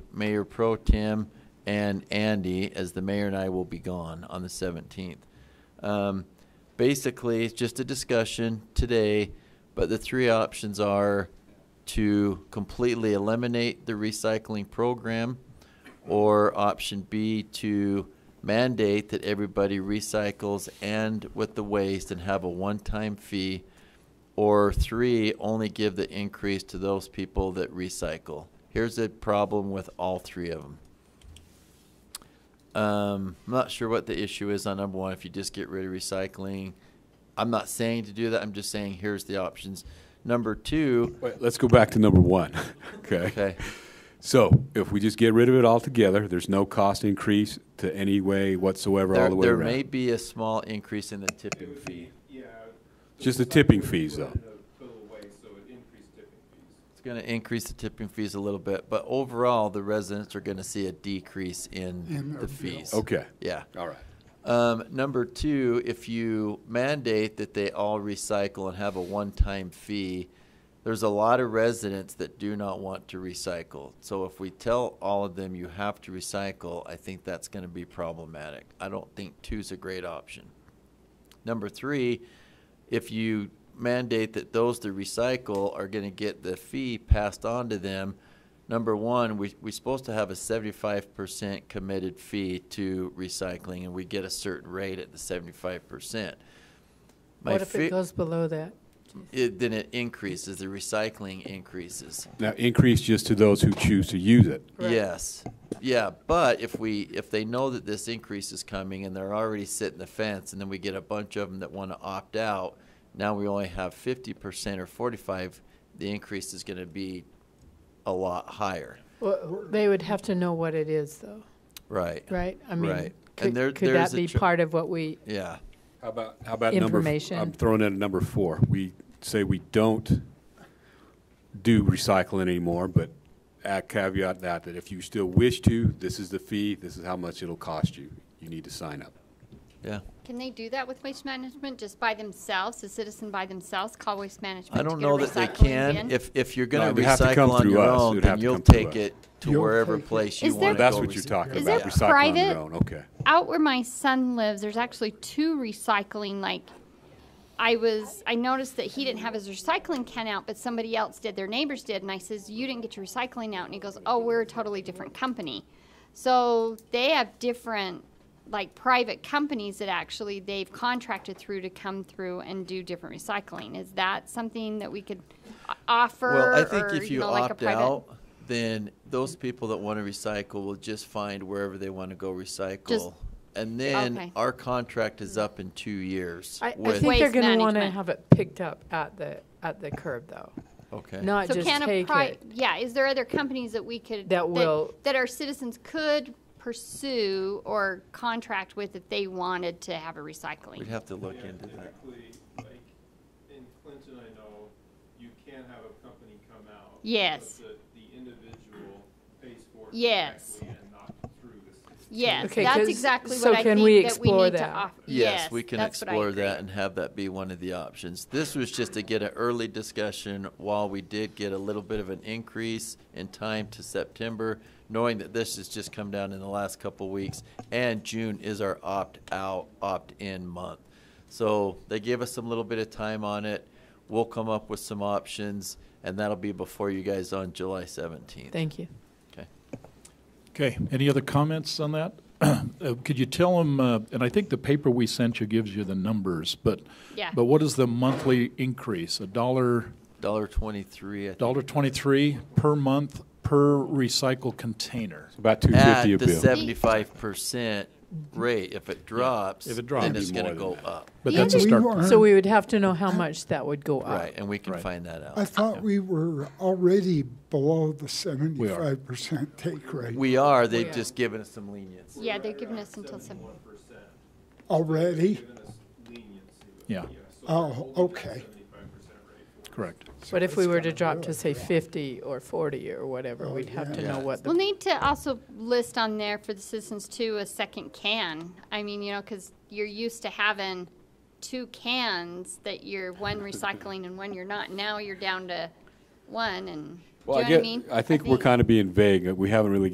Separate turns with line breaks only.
Mayor Pro Tem and Andy, as the mayor and I will be gone on the seventeenth. Um, basically, it's just a discussion today, but the three options are to completely eliminate the recycling program, or option B to mandate that everybody recycles and with the waste and have a one-time fee, or three, only give the increase to those people that recycle. Here's the problem with all three of them. Um, I'm not sure what the issue is on number one. If you just get rid of recycling, I'm not saying to do that. I'm just saying here's the options. Number two,
Wait, let's go back to number one. okay.
okay,
So if we just get rid of it altogether, there's no cost increase to any way whatsoever, all
there,
the way
there
around.
may be a small increase in the tipping fee.
Yeah.
Just the tipping fees, though.
Total waste, so it increased tipping fees.
It's going to increase the tipping fees a little bit, but overall, the residents are going to see a decrease in the fees.
Okay.
Yeah.
All right.
Um, number two, if you mandate that they all recycle and have a one-time fee, there's a lot of residents that do not want to recycle. So if we tell all of them you have to recycle, I think that's going to be problematic. I don't think two's a great option. Number three, if you mandate that those that recycle are going to get the fee passed on to them, number one, we, we're supposed to have a seventy-five percent committed fee to recycling, and we get a certain rate at the seventy-five percent.
What if it goes below that?
then it increases, the recycling increases.
Now, increase just to those who choose to use it.
Correct.
Yes, yeah, but if we, if they know that this increase is coming and they're already sitting the fence, and then we get a bunch of them that want to opt out, now we only have fifty percent or forty-five, the increase is going to be a lot higher.
Well, they would have to know what it is, though,
Right.
right? I mean,
Right. And
could,
there-
could
there's
that
a
be
tr-
part of what we,
Yeah,
How about, how about number? f-
Information.
I'm throwing in a number four. We say we don't do recycling anymore, but add caveat that, that if you still wish to, this is the fee, this is how much it'll cost you. You need to sign up.
yeah.
Can they do that with waste management, just by themselves, a citizen by themselves, call waste management?
I
to
don't
get a
know that they
recycling
can.
bin?
If, if you're going
No, it
to
would have to come
recycle on
through
your
us. It
own,
would
then
have to
you'll
come through
take
us.
it to
You'll
wherever
take it.
place
Is
you
there-
want to go.
That's what you're
recycle.
talking
Is
about,
there
recycling on your
private-
own, okay.
Out where my son lives, there's actually two recycling, like, I was, I noticed that he didn't have his recycling can out, but somebody else did, their neighbors did, and I says, you didn't get your recycling out, and he goes, oh, we're a totally different company. So they have different, like, private companies that actually they've contracted through to come through and do different recycling. Is that something that we could o- offer?
Well, I think
or,
if you
know, like a
opt
private-
out, then those people that want to recycle will just find wherever they want to go recycle. And then
Okay.
our contract is up in two years.
I, I
with-
think they're
Waste
going to want to
management.
have it picked up at the, at the curb, though,
Okay.
not
So
just
can a
take
pri-
it.
yeah, is there other companies that we could?
That will-
That our citizens could pursue or contract with if they wanted to have a
We'd
recycling?
have to look
Yeah,
into that.
Typically, like, in Clinton, I know, you can have a company come out.
Yes.
But the, the individual pays for it.
Yes.
directly And not through the system.
Yes,
Okay,
that's
'cause-
exactly
so
what I
can
think
we
that we
explore
need to
that?
offer.
Yes, we can
that's what I
explore
agree.
that and have that be one of the options. This was just to get an early discussion while we did get a little bit of an increase in time to September, knowing that this has just come down in the last couple of weeks, and June is our opt-out, opt-in month. So they gave us some little bit of time on it. We'll come up with some options, and that'll be before you guys on July seventeenth.
Thank you.
Okay.
Okay, any other comments on that? Uh, Could you tell them, and I think the paper we sent you gives you the numbers, but,
Yeah.
but what is the monthly increase? A dollar,
Dollar twenty-three, I think,
dollar twenty-three per month per recycle container?
About two
at
fifty a
the
bill.
seventy-five percent rate. If it drops,
If it drops,
then
it'd
it's
be more
gonna
than
go
that.
up.
But
The
that's a
other-
start.
So we would have to know how much that would go up.
Right, and we can
Right.
find that out.
I-
I thought we were already below the seventy-five percent take rate
We are, they've
Yeah.
just given us some lenience.
Yeah, they're giving us until seven.
One percent,
already.
given us leniency.
Yeah.
So
Oh, okay.
seventy-five percent rate for
Correct.
But if we were to drop to, say, 50 or 40 or whatever, we'd have to
yeah.
know what
We'll
the,
need to also list on there for the citizens too, a second can. I mean, you know, because you're used to having two cans that you're one recycling and one you're not. Now you're down to one and, do you know
Well,
what
I
I
get,
mean?
I think we're kind of being vague. We haven't really